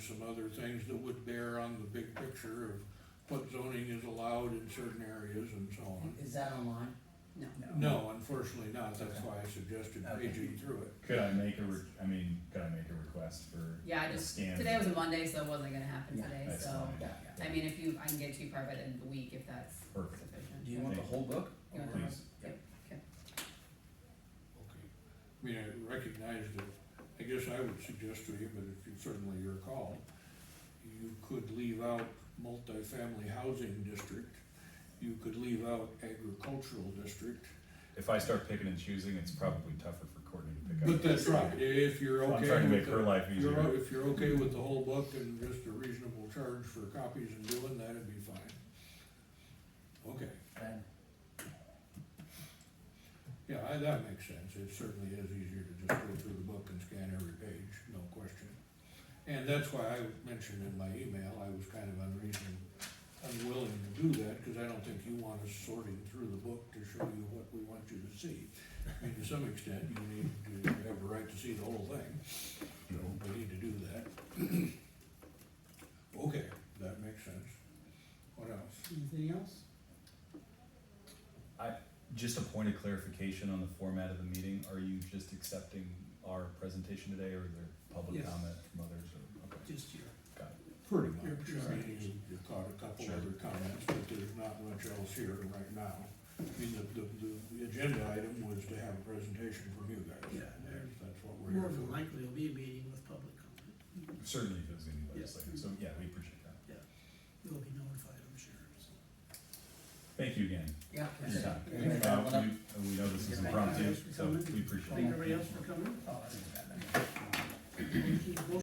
some other things that would bear on the big picture of what zoning is allowed in certain areas and so on. Is that online? No. No, unfortunately not, that's why I suggested paging through it. Could I make a, re- I mean, could I make a request for? Yeah, I a just, scan? today was a Monday, so it wasn't gonna happen Yeah, today, That's so, fine. Yeah, I mean, if you, I can get to you probably by the end of the week if that's Perfect. sufficient. Do you want the whole book? You want the Please. rest? Yep, okay. Okay. I mean, I recognize that, I guess I would suggest to you, but it's certainly your call, you could leave out multifamily housing district, you could leave out agricultural district, If I start picking and choosing, it's probably tougher for Courtney to pick But up. that's right, if you're So I'm okay trying to with make her the, life if easier. you're, if you're okay with the whole book and just a reasonable charge for copies and doing that, it'd be fine. Okay, Then, yeah, I, that makes sense, it certainly is easier to just go through the book and scan every page, no question. And that's why I mentioned in my email, I was kind of unreason, unwilling to do that, cause I don't think you want us sorting through the book to show you what we want you to see. I mean, to some extent, you need to have a right to see the whole thing. So we need to do that. Okay, that makes sense. What else? Anything else? Just a point of clarification on the format of the meeting, are you just accepting our presentation today, or is there public Yes. comment from others, or, okay, Just your, got it. Pretty Your much. I mean, you you caught a couple Sure. other comments, but there's not much else here right now. I mean, the, the, the- the agenda item was to have a presentation from you guys. Yeah. That's that's what we're more here than for. likely will be a meeting with public comment. Certainly if it's gonna be Yeah. legislative, so, yeah, we appreciate that. You'll be notified, I'm sure, so. Thank you again yeah. for that's your it. time. Everybody got one Uh, up? we, we know this is Yeah. impromptu, Thank you. so we appreciate it. Thank everybody else for coming. Oh, that's not bad then. Motion-